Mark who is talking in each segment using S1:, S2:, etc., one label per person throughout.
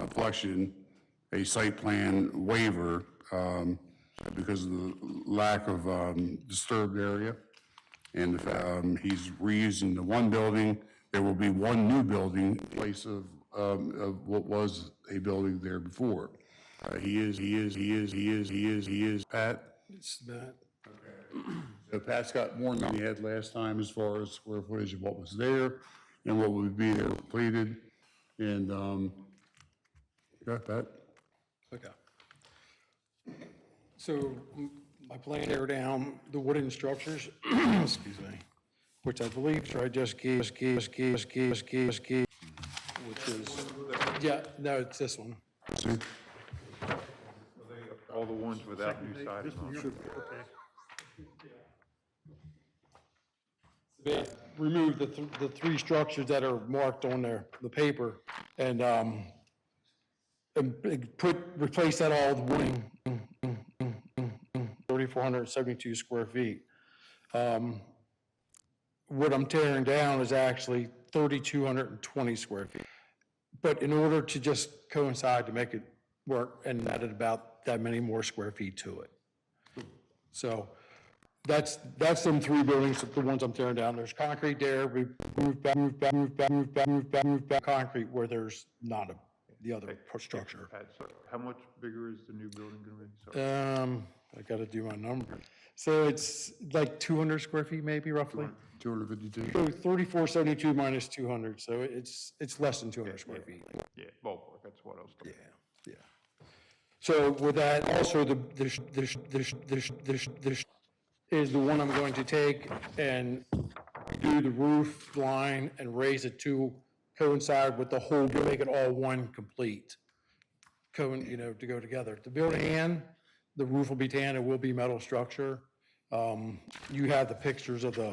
S1: afflection, um, a site plan waiver um, because of the lack of um, disturbed area. And if, um, he's reusing the one building, there will be one new building in place of, um, of what was a building there before. Uh, He is, he is, he is, he is, he is, he is, Pat?
S2: It's not,
S1: So Pat's got more than he had last time as far as square footage of what was there and what would be there completed. And, um, got that?
S2: okay. So m- my plan there down, the wooden structures, excuse me, which I believe I just gave, just gave, just gave, just gave, just gave, just gave, which is, yeah, no, it's this one.
S1: See?
S3: All the ones without new siding on.
S2: They removed the, th- the three structures that are marked on there, the paper, and, um, and big- put, replace that all with wooden, thirty-four hundred and seventy-two square feet. Um, What I'm tearing down is actually thirty-two hundred and twenty square feet. But in order to just coincide to make it work and added about that many more square feet to it. So, that's, that's them three buildings, the ones I'm tearing down. There's concrete there, we moved back, moved back, moved back, moved back, moved back, moved back, concrete where there's not a, the other structure.
S3: Pat, so how much bigger is the new building gonna be? Sorry,
S2: Um, I gotta do my number. So it's like two hundred square feet maybe roughly?
S1: Two hundred fifty-two?
S2: So thirty-four seventy-two minus two hundred, so it's, it's less than two hundred square feet.
S3: yeah, ballpark, that's what I was talking.
S2: Yeah. So with that, also the, this, this, this, this, this, this is the one I'm going to take and do the roof line and raise it to coincide with the whole, to make it all one complete. Cohen, you know, to go together. The building and the roof will be tan, it will be metal structure. Um, you have the pictures of the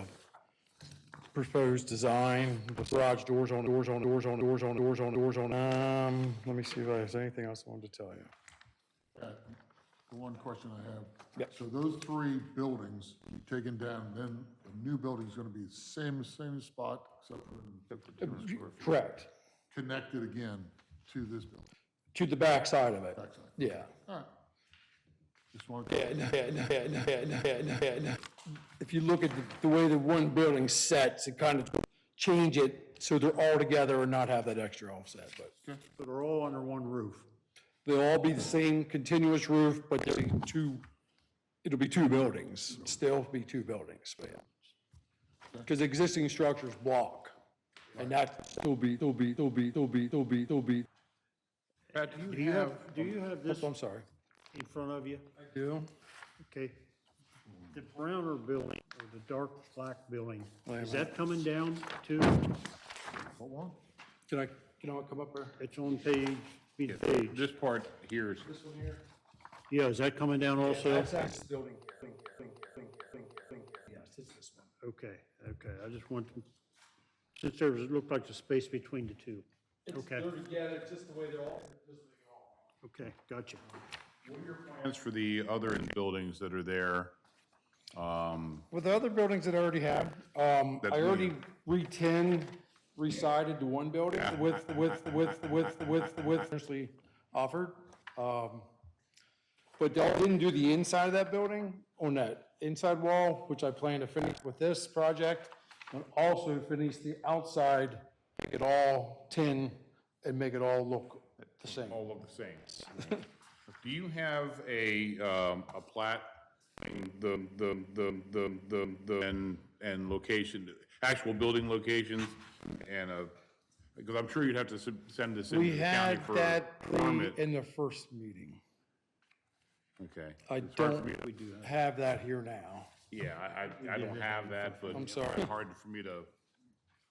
S2: proposed design, the garage doors on, doors on, doors on, doors on, doors on, doors on, um, let me see if I have anything else I wanted to tell you.
S4: The one question I have.
S2: Yep.
S4: So those three buildings taken down, then the new building's gonna be the same, same spot, except for
S2: Correct,
S4: connected again to this building,
S2: to the back side of it,
S4: backside.
S2: yeah.
S4: All right. Just wanted.
S2: Yeah, no, yeah, no, yeah, no, yeah, no, yeah, no, yeah, no. If you look at the- the way the one building sets, it kind of change it so they're all together and not have that extra offset, but.
S5: So they're all under one roof.
S2: They'll all be the same continuous roof, but they'll be two, it'll be two buildings, still be two buildings, but yeah. Because existing structures block, and that still be, still be, still be, still be, still be, still be,
S3: about. Pat,
S5: Do you have, do you have this
S2: oh, I'm sorry.
S5: in front of you?
S2: You?
S5: Okay. The browner building, or the dark black building,
S2: Wait a
S5: is that coming down too?
S4: What one?
S2: Can I, can I come up there?
S5: It's on page, be the page.
S3: this part here is,
S5: Yeah, is that coming down also?
S2: building here, building here, building here, building here, building here. Yes, it's this one.
S5: Okay, okay, I just want, to- since there was, it looked like the space between the two. Okay,
S2: together, just the way they're all.
S5: okay, gotcha.
S3: plans for the other buildings that are there. Um,
S2: With the other buildings that I already have, um,
S3: That
S2: I
S3: we-
S2: already re-tin, re-sided to one building with, with, with, with, with, with, actually offered. Um, But I didn't do the inside of that building on that inside wall, which I plan to finish with this project. And also finish the outside, make it all tin and make it all look the same.
S3: all of the same. Do you have a, um, a plat, the, the, the, the, the, the, and, and location, actual building locations and a, because I'm sure you'd have to sub- send this into
S2: We
S3: the county
S2: had
S3: for a
S2: that
S3: permit.
S2: in the first meeting.
S3: Okay.
S2: I
S3: It's hard for
S2: don't
S3: me to-
S2: have that here now.
S3: Yeah, I, I, I don't have that, but.
S2: I'm sorry.
S3: It's hard for me to,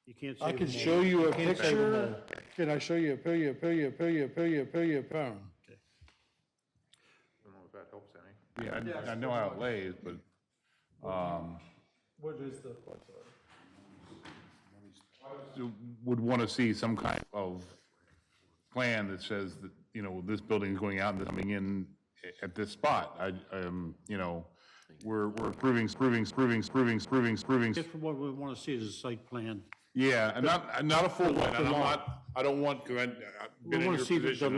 S5: You can't
S2: I
S5: save
S2: can
S5: them all.
S2: show you a
S5: can't save 'em
S2: picture. Can I show you a picture, a picture, a picture, a picture, a picture, a picture?
S3: I don't know if that helps any. Yeah, I, I know how it lays, but, um,
S2: What is the?
S3: you would want to see some kind of plan that says that, you know, this building is going out and coming in a- at this spot. I, um, you know, we're, we're approving, approving, approving, approving, approving, approving.
S5: Just what we want to see is a site plan.
S3: Yeah, and not, and not a full one, and I'm not, I don't want, because I've been in
S5: wanna
S3: your
S5: see the- the
S3: position.